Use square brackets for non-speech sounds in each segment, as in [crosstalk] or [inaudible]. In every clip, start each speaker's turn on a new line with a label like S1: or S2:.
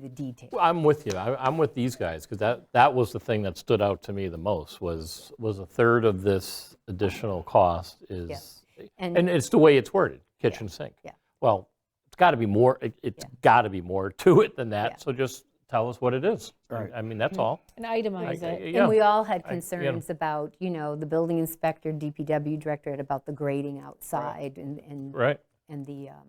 S1: the detail.
S2: I'm with you. I- I'm with these guys, because that, that was the thing that stood out to me the most, was, was a third of this additional cost is,
S1: And-
S2: and uh, it's the way it's worded, kitchen sink.
S1: yeah.
S2: Well, it's got to be more, it- it's got to be more [laughs] to it than
S1: Yeah. Mm-hmm.
S2: that, so just tell us what it is. I mean, that's all.
S3: And itemize it.
S1: And we
S2: Yeah,
S1: all had
S2: I- yeah.
S1: concerns about, you know, the building inspector, DPW director, about the grading outside and, and
S2: right,
S1: and the, um,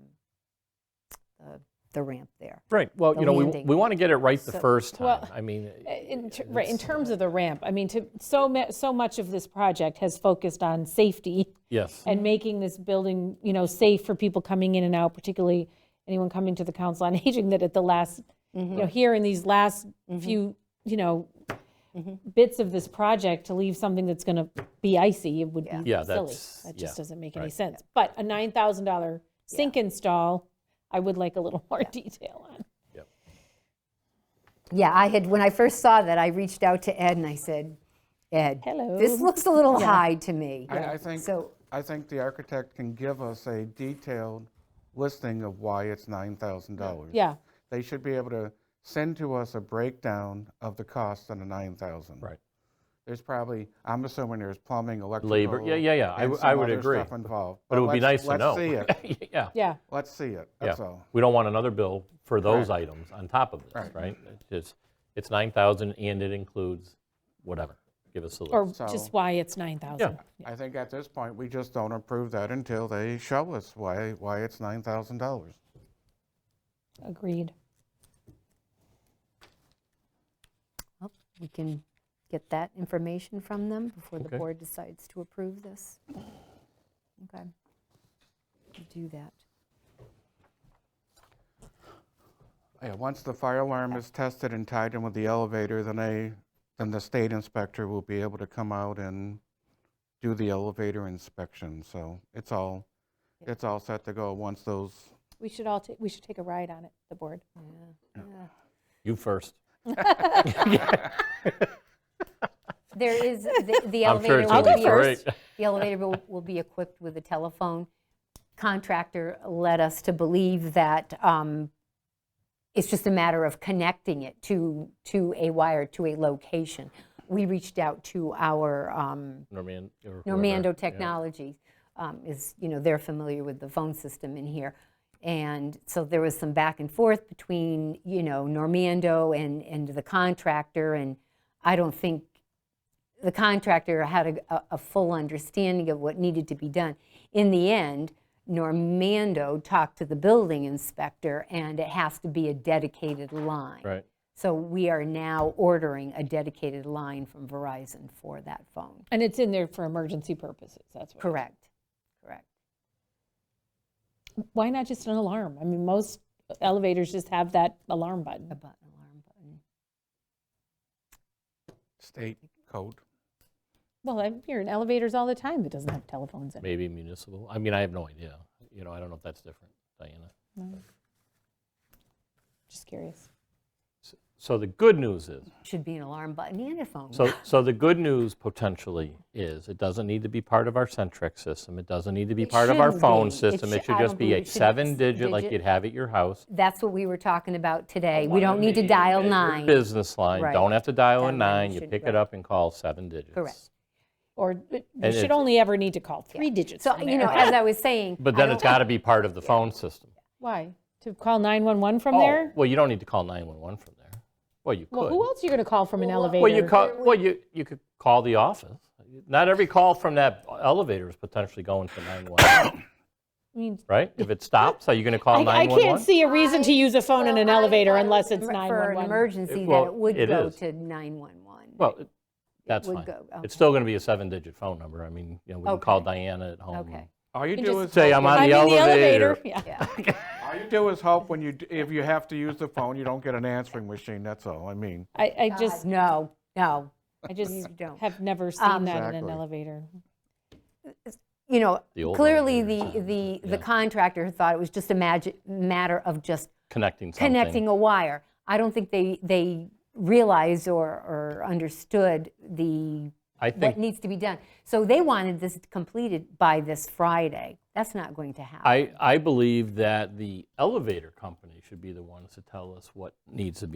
S1: the- the ramp there.
S2: right. Well,
S1: The
S2: you know, we,
S1: landing.
S2: we want to get it right the
S3: So-
S2: first time.
S3: well,
S2: I mean,
S3: Uh, In, ter- right, in terms
S2: uh,
S3: of the ramp, I mean, to, so, ma- so much of this project has focused on safety
S2: yes,
S3: and making this building, you know, safe for people coming in and out, particularly anyone coming to the Council on [laughs] Aging, that at the last, you
S2: Mm-hmm.
S3: know, here in these last few, you know,
S2: Mm-hmm.
S3: bits of this project, to leave something that's going to be icy, it would be
S2: Yeah,
S3: silly.
S2: that's-
S3: That just
S2: yeah,
S3: doesn't make any sense. But a $9,000 sink install, I would like a little [laughs] more detail on.
S1: Yeah, I had, when I first saw that, I reached out to Ed and I said, Ed,
S3: Hello.
S1: this looks a little high to me.
S4: I, I think,
S1: So,
S4: I think the architect can give us a detailed listing of why it's $9,000.
S3: Yeah.
S4: They should be able to send to us a breakdown of the cost on the 9,000.
S2: Right.
S4: There's probably, I'm assuming there's plumbing, electrical.
S2: yeah, yeah, yeah, I
S4: and
S2: w- I
S4: some
S2: would
S4: other
S2: agree.
S4: stuff involved.
S2: but it would be
S4: let's-
S2: nice to know.
S4: Let's see
S2: [laughs]
S4: it,
S2: Yeah.
S3: Yeah,
S4: let's see it,
S2: Yeah,
S4: that's all.
S2: We don't want another bill for those
S4: Correct.
S2: items on top of this,
S4: Right.
S2: right? It's just- It's 9,000 and it includes whatever. Give us a
S3: or
S2: list.
S4: So-
S3: just why it's 9,000.
S4: I think at this point, we just don't approve that until they show us why, why it's $9,000.
S3: Agreed.
S1: well, oh, we can get that information from them before the
S2: Okay.
S1: board decides to approve this. Okay. We'll Do that.
S4: Yeah, once the fire alarm is tested and tied in with the elevator, then I, then the state inspector will be able to come out and do the elevator inspection, so it's all, it's all set to go once those,
S3: We should all, ta- we should take a ride on it, the board.
S2: You first.
S1: There is, the- the
S2: I'm sure
S1: elevator
S2: it's
S1: will be...
S2: going to be great.
S1: [laughs] The elevator will, will be equipped with a telephone. Contractor led us to believe that um, it's just a matter of connecting it to, to a wire, to a location. We reached out to our um,
S2: [laughs] Norman- or whoever.
S1: Normando
S2: Yeah.
S1: Technologies, um, is, you know, they're familiar with the phone system in here. And so there was some back and forth between, you know, Normando and, and the contractor, and I don't think the contractor had a, a- a full understanding of what needed to be done. In the end, Normando talked to the building inspector, and it has to be a dedicated line.
S2: Right.
S1: So we are now ordering a dedicated line from Verizon for that phone.
S3: And it's in there for emergency purposes, that's what.
S1: Correct, correct.
S3: Why not just an alarm? I mean, most elevators just have that alarm
S1: A
S3: button.
S1: button, alarm button.
S4: state code.
S3: Well, I'm here in elevators all the time, it doesn't have telephones in it.
S2: Maybe municipal. I mean, I have no idea. You know, I don't know if that's different, Diana.
S3: Just curious.
S2: So the good news is,
S1: Should be an alarm button and a phone.
S2: So, so the good news potentially is, it doesn't need to be part of our Centric system, it doesn't need to be
S1: It
S2: part of our
S1: shouldn't
S2: phone
S1: be. It
S2: system, it
S1: should-
S2: should
S1: I
S2: just
S1: don't
S2: be
S1: believe
S2: a
S1: it should be
S2: seven-digit like
S1: digit.
S2: you'd have at your house.
S1: That's what we were talking about today.
S2: Oh,
S1: We don't need to dial nine.
S2: Business line,
S1: Right.
S2: don't have to dial a
S1: Dial nine,
S2: nine,
S1: you
S2: you
S1: shouldn't,
S2: pick
S1: right.
S2: it up and call seven digits.
S1: Correct.
S3: Or but you
S2: And
S3: should
S2: it-
S3: only ever need to call three digits
S1: So,
S3: in
S1: you know,
S3: there.
S1: as I was saying.
S2: But
S1: I
S2: then it's
S1: don't-
S2: got to be part of the phone system.
S3: Why? To call 911 from
S2: Oh,
S3: there?
S2: Well, you don't need to call 911 from there. Well, you could.
S3: Well, who else are you going to call from an elevator?
S2: Well, you call, well, you, you could call the office. Not every call from that elevator is potentially going to 911,
S3: I mean,
S2: right? If it stops, are you going to
S3: I
S2: call
S3: I
S2: 911?
S3: can't see a reason to use a phone in an elevator unless it's
S1: For an
S3: 911.
S1: emergency,
S2: It-
S1: that
S2: well,
S1: it would
S2: it
S1: go
S2: is.
S1: to 911.
S2: Well, it- that's
S1: would
S2: fine.
S1: go-
S2: It's still going to be a seven-digit phone number. I mean, you know, we can call Diana at home.
S1: Okay.
S2: and
S4: All you
S3: And
S4: do
S3: just-
S4: is,
S2: Say,
S4: hope-
S2: I'm on
S3: I'm
S2: the
S3: in the
S2: elevator.
S3: elevator, yeah.
S2: [laughs]
S4: all you do is hope when you, d- if you have to use the phone, you don't get an answering machine, that's all, I mean.
S3: I
S1: Uh,
S3: I just,
S1: No, no.
S3: I just
S1: don't.
S3: have never seen that in an
S4: Exactly.
S3: elevator.
S1: You know,
S2: The old
S1: clearly
S2: elevators,
S1: the, the, the
S2: yeah.
S1: contractor thought it was just a magic, matter of just
S2: Connecting something.
S1: connecting a wire. I don't think they, they realized or, or understood the
S2: I
S1: what
S2: think,
S1: needs to be done. So they wanted this completed by this Friday. That's not going to happen.
S2: I, I believe that the elevator company should be the ones to tell us what needs to be